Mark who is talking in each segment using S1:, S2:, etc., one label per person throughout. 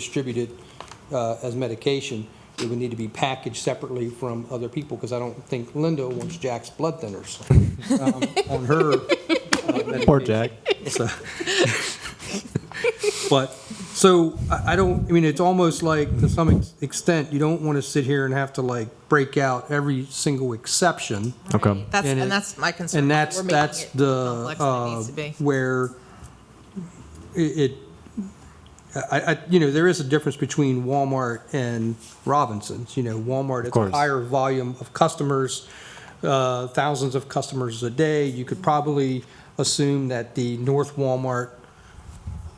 S1: distributed uh, as medication, it would need to be packaged separately from other people, because I don't think Linda wants Jack's blood thinners um, on her. uh,
S2: Poor
S1: medication.
S2: Jack.
S1: So- But, so, I, I don't, I mean, it's almost like, to some ex- extent, you don't want to sit here and have to like break out every single exception.
S2: Okay.
S3: That's,
S1: And
S3: and,
S1: it-
S3: that's my concern.
S1: And
S3: We're
S1: that's,
S3: making
S1: that's
S3: it
S1: the,
S3: complex than it
S1: uh,
S3: needs to be.
S1: where i- it, I, I, you know, there is a difference between Walmart and Robinsons, you know, Walmart, it's a
S2: course.
S1: higher volume of customers, uh, thousands of customers a day, you could probably assume that the North Walmart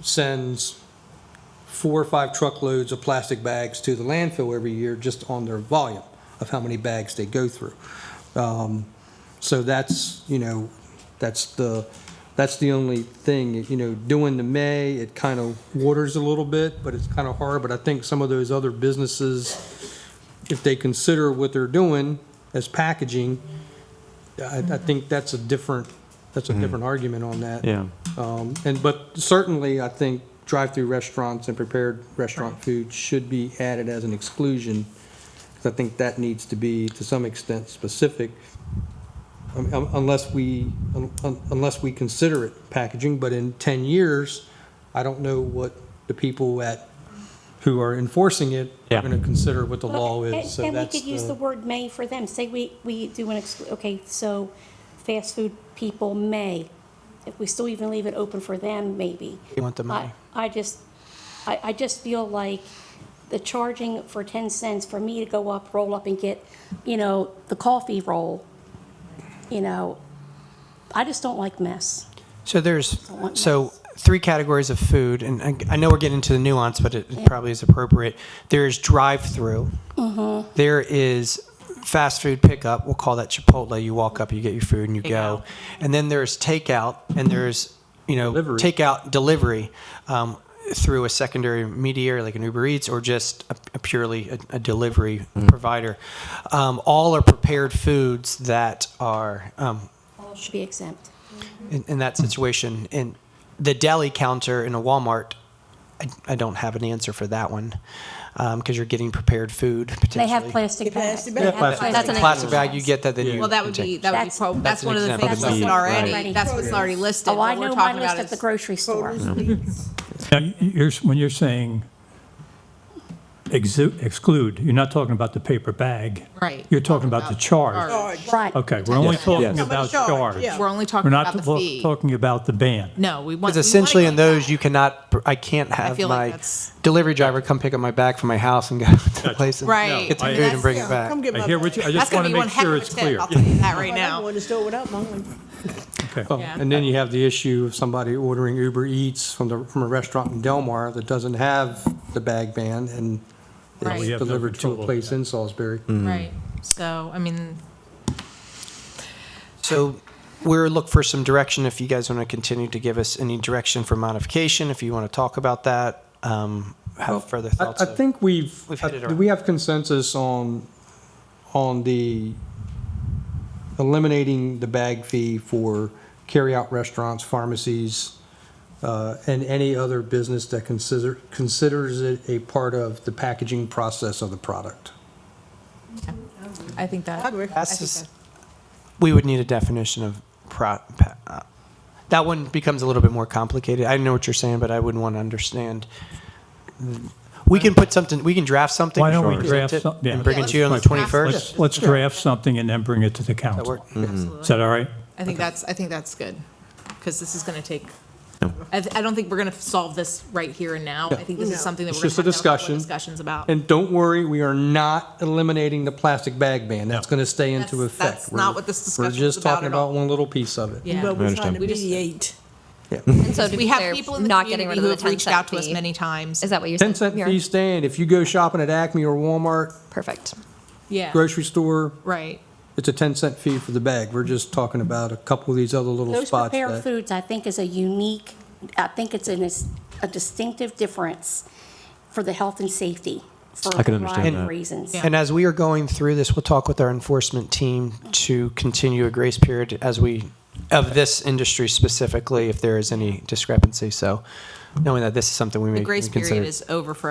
S1: sends four or five truckloads of plastic bags to the landfill every year just on their volume of how many bags they go through. Um, So that's, you know, that's the, that's the only thing, you know, doing the May, it kind of waters a little bit, but it's kind of hard. But I think some of those other businesses, if they consider what they're doing as packaging, I, I think that's a different, that's a different argument on that.
S2: Yeah.
S1: Um, And, but certainly, I think drive-through restaurants and prepared restaurant food should be added as an exclusion, 'cause I think that needs to be, to some extent, specific, um, um, unless we, un- un- unless we consider it packaging, but in 10 years, I don't know what the people at, who are enforcing it are
S2: Yeah.
S1: going to consider what the law
S4: Well,
S1: is, so
S4: And we
S1: that's
S4: could use the
S1: the,
S4: word may for them, say we, we do an, ex- okay, so fast food people may, if we still even leave it open for them, maybe.
S5: You want the money.
S4: I I just, I, I just feel like the charging for 10 cents for me to go up, roll up and get, you know, the coffee roll, you know, I just don't like mess.
S5: So there's,
S4: want
S5: so three categories of food, and I, I know we're getting into the nuance, but it, it probably is appropriate. There is drive-through. There is fast food pickup. We'll call that Chipotle. You walk up, you get your food, and you go.
S3: Takeout.
S5: And then there's takeout, and there's you know
S1: Delivery.
S5: takeout delivery um, through a secondary mediator like an Uber Eats or just a, a purely a, a delivery provider. Um, all are prepared foods that are um,
S4: All should be exempt.
S5: in, in that situation. And the deli counter in a Walmart, I, I don't have an answer for that one because you're getting prepared food potentially.
S4: They have plastic bags. They have
S5: Plastic,
S4: plastic
S3: That's an
S4: bags.
S5: plastic bag. You get that, then you.
S3: Well, that would be, that would be,
S4: That's-
S3: prob- that's
S5: an
S3: one of the
S5: example.
S3: things
S5: That'd
S3: listed
S5: be-
S3: already.
S4: Right.
S3: That's what's already listed.
S4: Oh, I
S3: What we're
S4: know my
S3: talking
S4: list
S3: about
S4: at the
S3: is-
S4: grocery store.
S6: Now, y- you're, when you're saying exu- exclude, you're not talking about the paper bag.
S3: Right.
S6: You're talking about the charge.
S4: Right.
S6: Okay, we're only
S3: Yes.
S6: talking
S2: Yes.
S6: about charge.
S3: We're only
S6: We're
S3: talking
S6: not
S3: about the
S6: talk-
S3: fee.
S6: talking about the ban.
S3: No, we want.
S5: Because essentially, in those, you cannot. I can't have
S3: feel like
S5: my
S3: that's-
S5: delivery driver come pick up my bag from my house and go to the place and
S3: Right.
S5: get the
S6: I-
S5: food and bring it back.
S7: Come get my
S6: I hear what you, I
S3: That's
S6: just
S3: going
S6: want
S3: to
S6: to
S3: be one heck
S6: make sure
S3: of a
S6: it's
S3: tip.
S6: clear.
S3: I'll tell you that right
S7: I don't
S3: now.
S7: want to store without mine.
S6: Okay.
S1: and then you have the issue of somebody ordering Uber Eats from the, from a restaurant in Delmar that doesn't have the bag ban, and
S3: Right. We
S1: it's
S6: have no
S1: delivered to
S6: control
S1: a
S6: over
S1: place
S6: that.
S1: in Salisbury.
S3: Right. So, I mean,
S5: So we're look for some direction if you guys want to continue to give us any direction for modification. If you want to talk about that, um, have further
S1: I,
S5: thoughts.
S1: I
S5: of-
S1: think we've,
S5: We've hit it
S1: do we have consensus on, on the eliminating the bag fee for carryout restaurants, pharmacies, uh, and any other business that consider, considers it a part of the packaging process of the product.
S3: I think that. I think
S5: That's just-
S3: that-
S5: we would need a definition of pro. Pa, uh, that one becomes a little bit more complicated. I know what you're saying, but I wouldn't want to understand. We can put something. We can draft something.
S6: Why don't we
S5: and present
S6: draft
S5: it
S6: something? Yeah.
S5: and bring it to you on the
S6: Let's-
S5: 21st?
S6: Let's, let's draft something and then bring it to the
S5: That
S6: council.
S5: work?
S6: Is that all right?
S3: I think that's, I think that's good, because this is going to take, I, th- I don't think we're going to solve this right here and now. I think this is something that
S1: It's
S3: we're
S1: just a
S3: going to have to have a couple
S1: discussion.
S3: of discussions about.
S1: And don't worry, we are not eliminating the plastic bag ban. That's going to stay into
S3: That's-
S1: effect.
S3: that's
S1: We're-
S3: not what this discussion
S1: We're
S3: is
S1: just
S3: about
S1: talking
S3: at all.
S1: about one little piece of it.
S3: Yeah.
S7: But we're trying to
S3: We just-
S7: mediate.
S8: And so to
S3: We
S8: be
S3: have
S8: clear,
S3: people in the
S8: not getting
S3: community
S8: rid
S3: who have
S8: of the 10
S3: reached out to
S8: cent
S3: us
S8: fee.
S3: many times.
S8: Is that what you're saying?
S1: 10 cent
S8: Mira?
S1: fee stand, if you go shopping at Acme or Walmart,
S8: Perfect.
S3: Yeah.
S1: grocery store,
S3: Right.
S1: it's a 10 cent fee for the bag. We're just talking about a couple of these other little
S4: Those
S1: spots.
S4: prepared
S1: that-
S4: foods, I think, is a unique, I think it's an, is a distinctive difference for the health and safety for
S2: I
S4: a
S2: can understand
S4: variety of
S2: that.
S4: reasons.
S5: And as we are going through this, we'll talk with our enforcement team to continue a grace period as we, of this industry specifically, if there is any discrepancy. So knowing that this is something we may
S3: The grace period
S5: consider.
S3: is over for